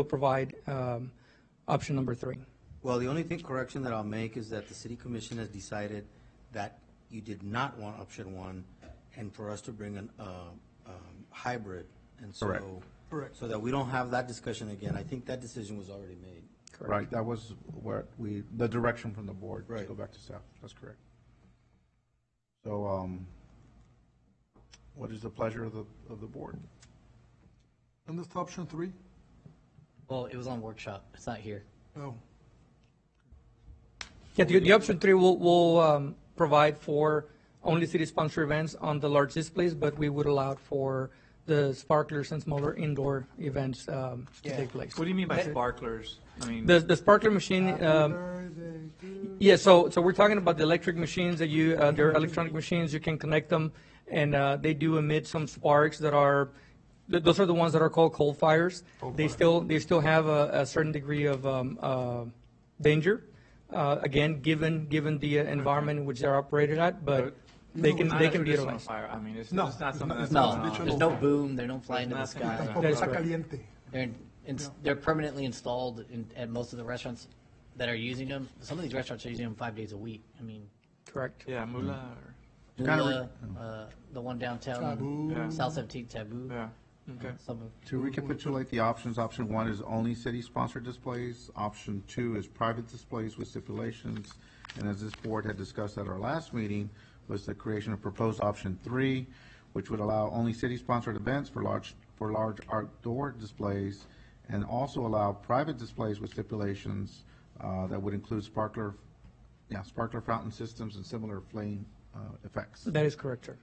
will provide um, option number three. Well, the only thing correction that I'll make is that the city commission has decided that you did not want option one and for us to bring an, uh, um, hybrid and so. Correct. Correct. So that we don't have that discussion again. I think that decision was already made. Right, that was where we, the direction from the board. to Right. Go back to staff, that's correct. So, um, what is the pleasure of the, of the board? And that's option three? Well, it was on workshop. It's not here. Oh, Yeah, the, the option three will, will um, provide for only city-sponsored events on the large displays, but we would allow for the sparklers and smaller indoor events um, to take place. What do you mean by sparklers? I mean, The, the sparkler machine, um, birthday to- Yeah, so, so we're talking about the electric machines that you, uh, they're electronic machines, you can connect them, and, uh, they do emit some sparks that are, th- those are the ones that are called coal fires. They still, they still have a, a certain degree of, um, uh, danger, uh, again, given, given the uh, environment in which they're operated at, but they can, not they a can be traditional utilized. Fire. I mean, it's, No, it's not it's not- something that's it's going not No, on. traditional. there's no boom. They're not flying to the There's nothing sky. like Tampoco That is está correct. caliente. They're, in- ins- they're permanently installed in, at most of the restaurants that are using them. Some of these restaurants are using them five days a week. I mean, Correct. Yeah, moolah. Or, kinda re- Lula, uh, the one downtown, Taboo. Yeah. South 17th Taboo. yeah. Okay. Some of, To recapitulate the options, option one is only city-sponsored displays, option two is private displays with stipulations, and as this board had discussed at our last meeting, was the creation of proposed option three, which would allow only city-sponsored events for large, for large outdoor displays, and also allow private displays with stipulations, uh, that would include sparkler, yeah, sparkler fountain systems and similar flame, uh, effects. That is correct, sir.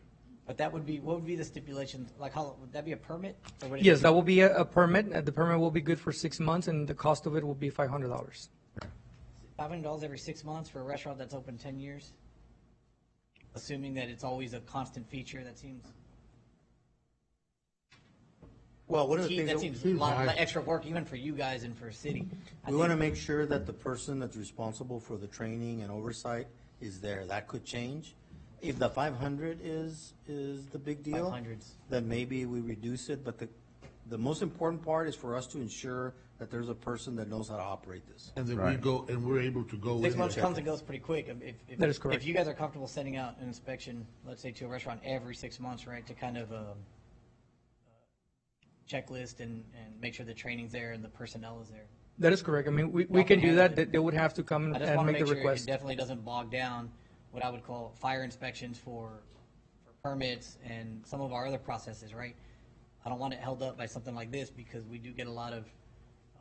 but that would be what would be the stipulation? Like, how would that be a permit? Or would it- Yes, that will be a, a permit, uh, the permit will be good for six months, and the cost of it will be five hundred dollars. Five hundred dollars every six months for a restaurant that's open ten years? Assuming that it's always a constant feature, that seems, Well, one of the things. that that- seems a lot of extra work even for you guys and for city. I We want to think- make sure that the person that's responsible for the training and oversight is there. That could change. If the five hundred is, is the big deal. 500s. Then maybe we reduce it, but the, the most important part is for us to ensure that there's a person that knows how to operate this. And then we Right. go, and we're able to go with Six it. months comes and goes pretty quick. If- if- That is correct. If you guys are comfortable sending out an inspection, let's say to a restaurant every six months, right, to kind of, um, checklist and, and make sure the training's there and the personnel is there. That is correct, I mean, we, we can do that, They- they would have to come I and just and want to make the make sure it request. definitely doesn't bog down what I would call fire inspections for, for permits and some of our other processes, right? I don't want it held up by something like this because we do get a lot of,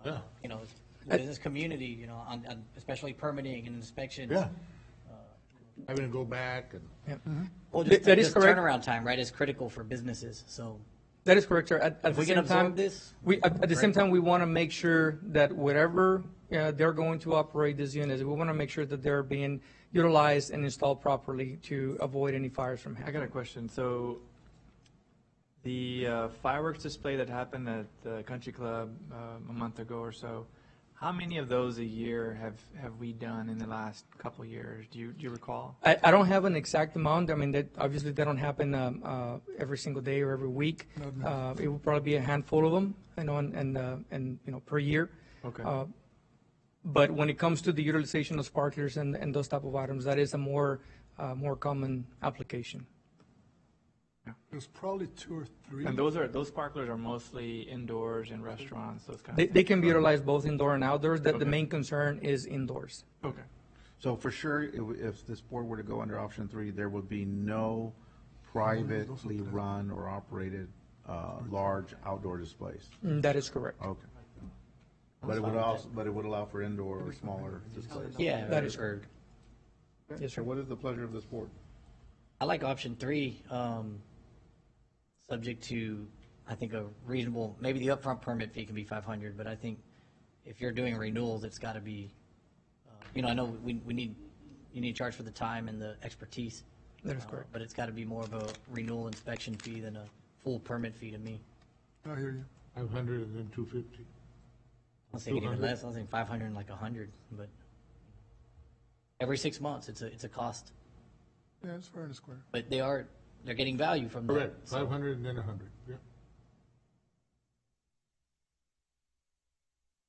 uh, Yeah. you know, the business community, you know, on, on especially permitting and inspection. Yeah. Having to go back and. Well, Th- just, that is just correct. turnaround time, right, is critical for businesses, so. That is correct, sir. At, at If we the can same time, absorb this, we, at, at the same great. time, we want to make sure that whatever uh, they're going to operate these units, we want to make sure that they're being utilized and installed properly to avoid any fires from I happening. got a question. So, the uh, fireworks display that happened at the country club um, a month ago or so, how many of those a year have, have we done in the last couple years? Do you do you recall? I, I don't have an exact amount. I mean, that obviously they don't happen um, uh, every single day or every week. Uh, it will probably be a handful of them, you know, and and, uh, and you know per year. Okay. Uh, but when it comes to the utilization of sparklers and, and those type of items, that is a more uh, more common application. There's probably two or three. and those are those sparklers are mostly indoors in restaurants, those kind They, of. things. they can be utilized both indoor and outdoors. The, the Okay. main concern is indoors. Okay. So for sure, it w- if this board were to go under option three, there would be no privately run or operated, uh, large outdoor displays. Mm, That is correct. Okay. But it would also, but it would allow for indoor or smaller displays. Yeah. That is correct. Yes, sir. So what is the pleasure of this board? I like option three, um, subject to, I think, a reasonable, maybe the upfront permit fee can be five hundred, but I think if you're doing renewals, it's gotta be, uh, you know, I know we, we need, you need to charge for the time and the expertise. That is uh, correct. But it's gotta be more of a renewal inspection fee than a full permit fee to me. I hear you. Five hundred and then two fifty. I was thinking even 200? less, I was thinking five hundred and like a hundred, but every six months, it's a, it's a cost, Yeah, it's fair and square. but they are, they're getting value from that. Correct, so- five hundred and then a hundred, yeah.